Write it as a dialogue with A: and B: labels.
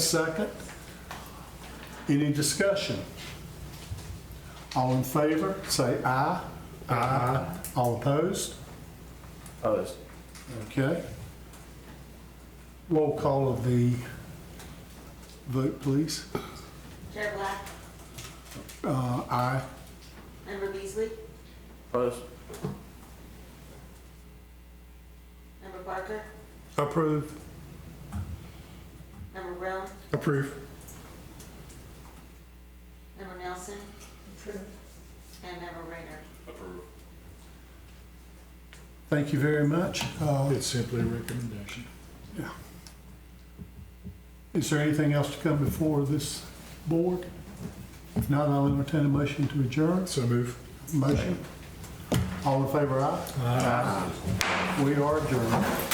A: second. Any discussion? All in favor, say aye. Aye. All opposed?
B: Opposed?
A: Okay. Roll call of the vote, please.
C: Chair Black,
A: Uh, Aye.
C: Member Beasley,
B: Opposed?
C: Member Barker,
A: Approve.
C: Member Brown,
A: Approve.
C: Member Nelson. And Member Rayner.
A: Thank you very much. Uh,
D: It's simply a recommendation.
A: Is there anything else to come before this board? If not, I'll entertain a motion to adjourn.
D: So move.
A: Motion. All in favor, aye? Aye. We are adjourned.